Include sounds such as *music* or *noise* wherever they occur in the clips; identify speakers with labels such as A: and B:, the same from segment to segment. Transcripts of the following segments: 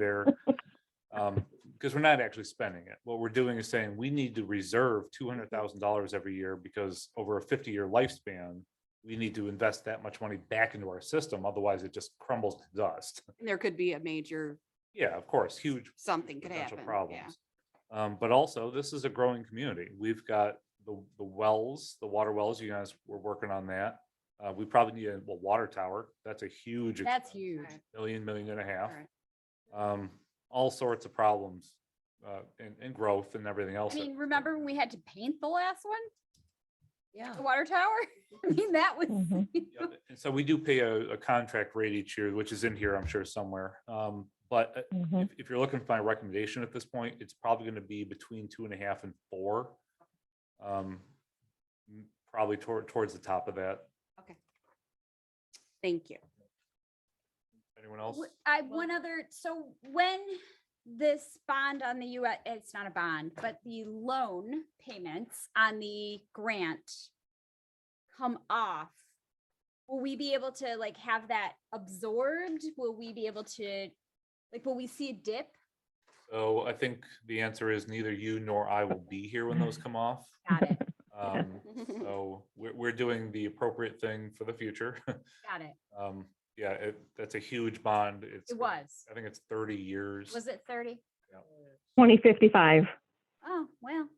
A: there. Um, because we're not actually spending it. What we're doing is saying we need to reserve two hundred thousand dollars every year because over a fifty-year lifespan, we need to invest that much money back into our system, otherwise it just crumbles to dust. *laughs*
B: And there could be a major,
A: Yeah, of course, huge
B: something could
A: potential
B: happen. Yeah.
A: problems. Um, but also, this is a growing community. We've got the, the wells, the water wells, you guys were working on that. Uh, we probably need a well, water tower. That's a huge.
C: That's
A: expense,
C: huge.
B: Alright.
A: Million, million and a half.
B: Alright.
A: Um, all sorts of problems, uh, and, and growth and everything else.
C: I
A: that-
C: mean, remember when we had to paint the last one,
B: Yeah.
C: the water tower? *laughs* I mean, that was.
D: Mhm.
A: Yeah, And so we do pay a, a contract rate each year, which is in here, I'm sure somewhere. Um, but uh,
D: Mhm.
A: if, if you're looking for my recommendation at this point, it's probably gonna be between two and a half and four. Um, m- Probably toward, towards the top of that.
B: Thank you.
A: Anyone else?
C: W- I, one other, so when this bond on the U, it's not a bond, but the loan payments on the grant come off, will we be able to like have that absorbed? Will we be able to, like, will we see a dip?
A: So I think the answer is neither you nor I will be here when those come off.
C: Got it,
A: Um, So we're, we're doing the appropriate thing for the future. *laughs*
C: got it.
A: Um, Yeah, it, that's a huge bond. It's. *laughs*
C: It was.
A: I think it's thirty years.
C: Was it thirty?
D: 2055.
C: Oh, well,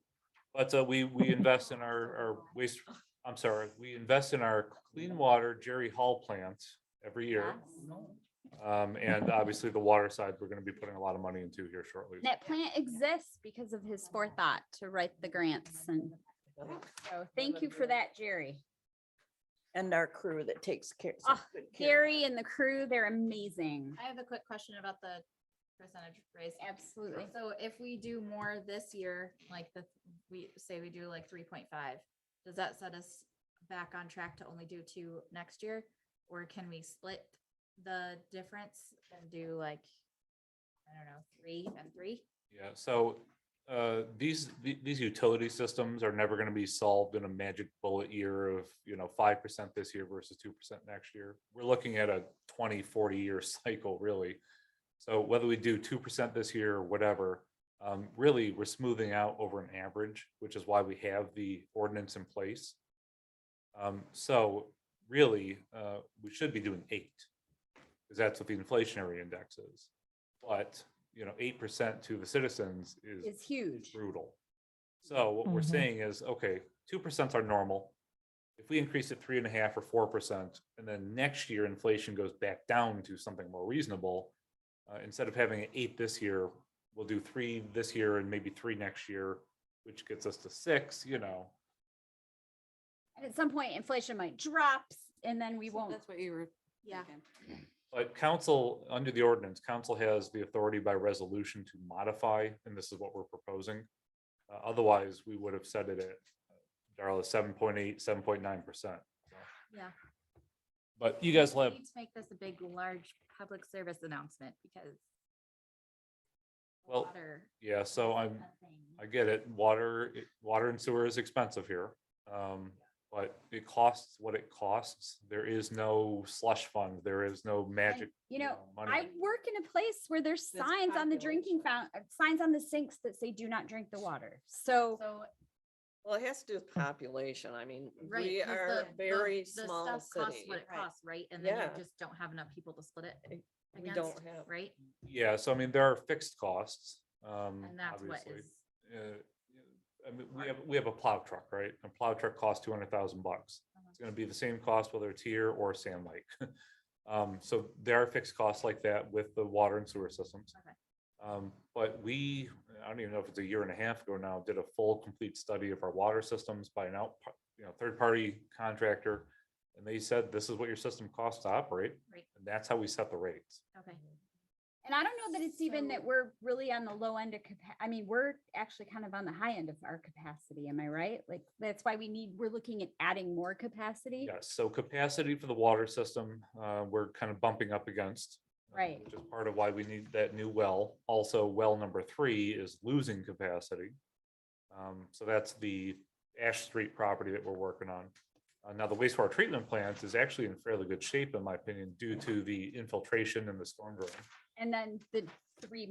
A: But uh, we, we invest in our, our waste, I'm sorry, we invest in our clean water Jerry Hall plant every year.
C: yes. Uh-huh.
A: Um, and obviously the water side, we're gonna be putting a lot of money into here shortly.
C: That plant exists because of his forethought to write the grants and so thank you for that, Jerry.
E: And our crew that takes care.
C: Ah,
E: such good care.
C: Gary and the crew, they're amazing.
F: I have a quick question about the percentage raise.
C: Absolutely.
F: So if we do more this year, like the, we say we do like three point five, does that set us back on track to only do two next year? Or can we split the difference and do like, I don't know, three and three?
A: Yeah, so uh, these, the- these utility systems are never gonna be solved in a magic bullet year of, you know, five percent this year versus two percent next year. We're looking at a 20, 40 year *laughs* cycle, really. So whether we do two percent this year or whatever, um, really, we're smoothing out over an average, which is why we have the ordinance in place. Um, so really, uh, we should be doing eight, because that's what the inflationary index is. But, you know, eight percent to the citizens is
C: It's huge.
A: brutal. So what we're
D: Mhm.
A: saying is, okay, two percent are normal. If we increase it three and a half or four percent, and then next year inflation goes back down to something more reasonable. Uh, instead of having an eight this year, we'll do three this year and maybe three next year, which gets us to six, you know.
C: And at some point inflation might drops and then we
B: So
C: won't.
B: That's what you were. thinking.
A: But council, under the ordinance, council has the authority by resolution to modify, and this is what we're proposing. Uh, Otherwise, we would have set it at, uh, Darla, seven point eight, seven point nine percent.
F: Yeah.
A: But you guys
F: We
A: will have,
F: Need to make this a big, large public service announcement because.
A: Well,
F: water
A: yeah, so I'm,
F: is a thing.
A: I get it. Water, it- water and sewer is expensive here. Um, but it costs what it costs. There is no slush fund. There is no magic.
C: You know,
A: money.
C: I work in a place where there's
B: That's
C: signs on the drinking
B: population.
C: fountain, signs on the sinks that say do not drink the water. So
F: So
E: Well, it has to do with population. I mean,
F: Right.
E: we
F: 'cause
E: are
F: the- the-
E: very
F: the
E: small
F: stuff costs
E: city.
F: What it
B: Right.
F: costs, right? And then
E: Yeah.
F: you just don't have enough people to split it
E: We
F: against,
E: don't have,
F: right?
A: Yeah, so I mean, there are fixed costs, um,
F: And that's what
A: obviously.
F: is,
A: Uh, I mean, we have, we have a plow truck, right? A plow truck costs two hundred thousand bucks.
F: Uh-huh.
A: It's gonna be the same cost whether it's here or Sand Lake. *laughs* Um, so there are fixed costs like that with the water and sewer systems.
F: Okay.
A: Um, but we, I don't even know if it's a year and a half ago now, did a full, complete study of our water systems by an out, you know, third-party contractor. And they said, this is what your system costs to operate,
F: right,
A: and that's how we set the rates.
F: okay.
C: And I don't know that it's even that
F: So-
C: we're really on the low end of capa- I mean, we're actually kind of on the high end of our capacity, am I right? Like, that's why we need, we're looking at adding more capacity.
A: Yes, so capacity for the water system, uh, we're kind of bumping up against. uh,
C: Right.
A: Which is part of why we need that new well. Also, well number three is losing capacity. Um, so that's the Ash Street property that we're working on. Uh, now, the wastewater treatment plant is actually in fairly good shape, in my opinion, due to the infiltration and the storm drain.
C: And then the three